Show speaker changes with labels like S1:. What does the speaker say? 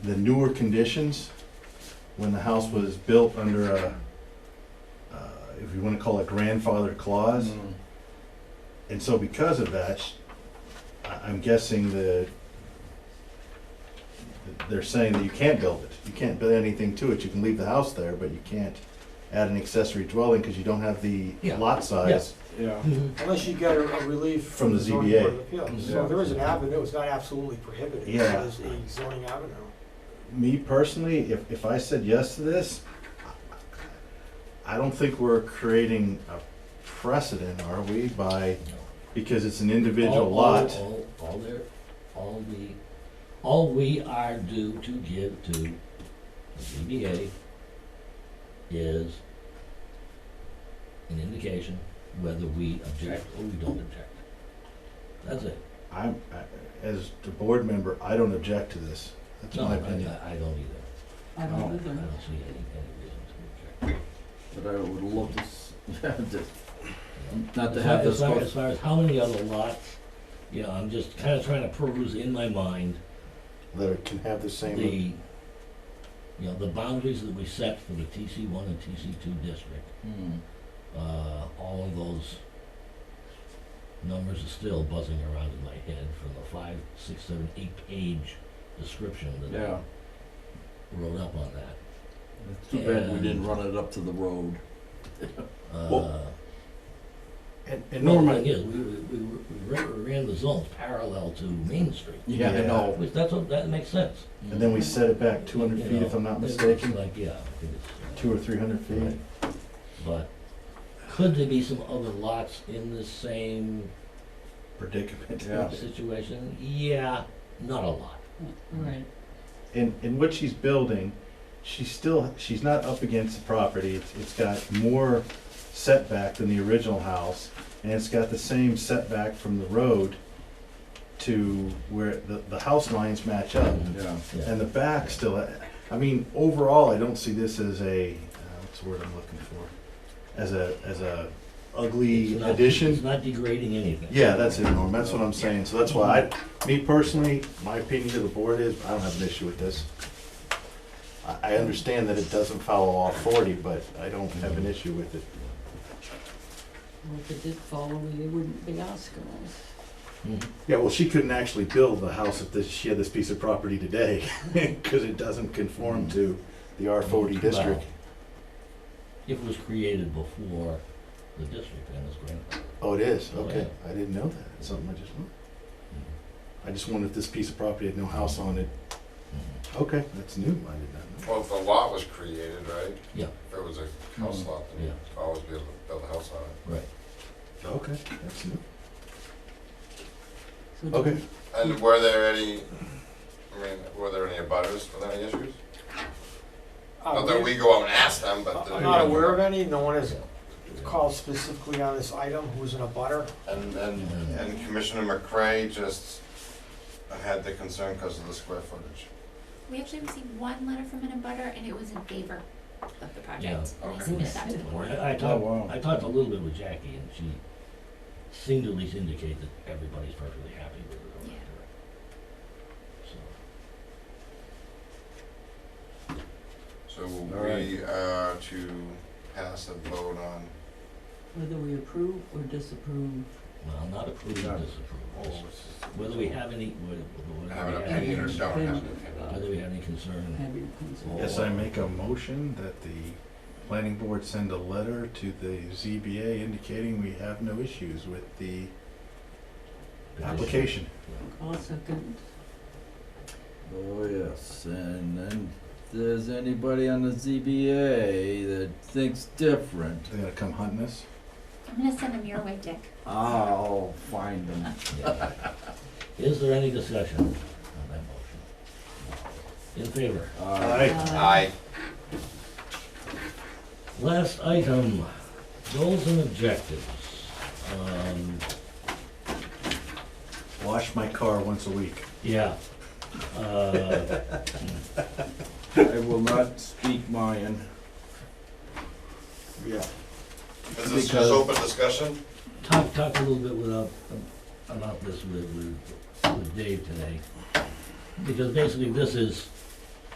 S1: the newer conditions, when the house was built under a, uh, if you wanna call it grandfather clause,
S2: Mm.
S3: Mm-hmm.
S1: and so because of that, sh- I- I'm guessing that that they're saying that you can't build it. You can't build anything to it. You can leave the house there, but you can't add an accessory dwelling because you don't have the
S3: Yeah.
S1: lot size.
S2: Yeah,
S4: Unless you get a a relief.
S1: From the
S4: zoning
S1: ZBA.
S4: board of appeals. So
S2: Yeah.
S4: there is an avenue, it's not absolutely prohibited.
S1: Yeah.
S4: It is a zoning avenue.
S1: Me personally, if, if I said yes to this, I don't think we're creating a precedent, are we, by, because it's an individual
S3: All- all-
S1: lot.
S3: All, all there, all the, all we are due to give to the ZBA is an indication whether we object or we don't object. That's it.
S1: I'm, I- as a board member, I don't object to this. That's
S3: No,
S1: my
S3: I,
S1: opinion.
S3: I I don't either.
S5: I
S2: No.
S5: don't
S3: I
S5: either.
S3: don't see any, any reason to object.
S2: but I would love to, s- to-
S3: you know.
S2: not to
S3: As far-
S2: have this.
S3: As far,
S2: go-
S3: as far as how many other lots, you know, I'm just kinda trying to peruse in my mind
S1: That it can have the
S3: the, you know, the boundaries that we set for the TC one and TC two district,
S2: Mm.
S3: uh, all of those numbers are still buzzing around in my head from the five, six, seven, eight page description that
S2: Yeah,
S3: I wrote up on that.
S2: it's too bad we didn't run it up to the road.
S3: Uh,
S1: And, and
S3: well, the
S1: Norman,
S3: thing is, we, we, we we ran- we ran the zones parallel to Main Street,
S2: Yeah, Mm. I
S1: Yeah.
S2: know.
S3: which that's what, that makes sense.
S1: And then we set it back two hundred
S3: you
S1: feet, if
S3: know.
S1: I'm not
S3: It looks
S1: mistaken,
S3: Like, yeah, I think it's. uh,
S1: two or three hundred feet.
S3: Right. But could there be some other lots in the same
S1: Predicament.
S2: Yeah.
S3: situation? Yeah, not a lot.
S5: Right.
S1: And, and what she's building, she's still, she's not up against the property, it's, it's got more setback than the original house, and it's got the same setback from the road to where the, the house lines match up.
S2: Yeah,
S3: Yeah.
S1: And the back still, I mean, overall, I don't see this as a, uh, what's the word I'm looking for? As a, as a
S3: It's
S1: ugly
S3: not- It's
S1: addition.
S3: not degrading anything.
S1: Yeah, that's it, Norm, that's what I'm saying, so that's why I, me personally, my opinion to the board is, I don't have an issue with this. I, I understand that it doesn't follow law forty, but I don't have an issue with it.
S5: Well, if it did follow, they wouldn't be asking us.
S3: Mhm.
S1: Yeah, well, she couldn't actually build the house if this, she had this piece of property today, cause it doesn't conform to the R forty district.
S3: Well, If it was created before the district and its grandfather.
S1: Oh, it is?
S3: Oh,
S1: Okay. I didn't know that. It's something I just, I just wondered if this piece of property had no house on it. Okay, that's new. I did not know.
S6: Well, if the lot was created, right?
S3: Yeah.
S6: If it was a house
S2: Mm.
S6: lot, then you'd always be able to build a house on it.
S3: Mm-hmm. Right.
S1: Okay, that's new.
S5: So do
S1: Okay.
S5: we-
S6: And were there any, I mean, were there any abutters with any issues?
S4: Uh,
S6: Not that we go out and ask them, but.
S4: I'm not aware of any, no one has called specifically on this item, who's in a butter.
S6: And, and, and Commissioner McCray just had the concern because of the square footage.
S7: We actually received one letter from an abutter and it was in favor of the
S3: Yeah.
S7: project. And I
S6: Okay.
S7: submitted that to the board.
S3: I I
S2: Oh, wow.
S3: talked, I talked a little bit with Jackie and she seemed to at least indicate that everybody's perfectly happy with it. or
S7: Yeah.
S3: whatever. So,
S6: So
S2: right.
S6: we are to pass a vote on,
S5: Whether we approve or disapprove.
S3: well, not approve
S2: Yeah.
S3: or disapprove. Whether we have any, whether, whether
S6: have an
S3: we
S6: opinion or
S3: have,
S6: don't have an
S3: whether
S6: opinion.
S3: we have any concern
S5: Have your consent.
S1: Yes, I make a motion that the planning board send a letter to the ZBA indicating we have no issues with the application.
S5: I'll second.
S2: oh yes, and then if there's anybody on the ZBA that thinks different,
S1: They're gonna come hunting us.
S7: I'm gonna send them your way, Dick.
S2: I'll find them.
S3: Yeah. Is there any discussion on that motion? In favor?
S2: Uh,
S6: Aye.
S3: Last item, goals and objectives. Um,
S1: Wash my car once a week.
S3: yeah. Uh,
S2: I will not speak mine. Yeah.
S6: Is this
S2: Because-
S6: just open discussion?
S3: talk, talk a little bit without, about this with, with, with Dave today. Because basically this is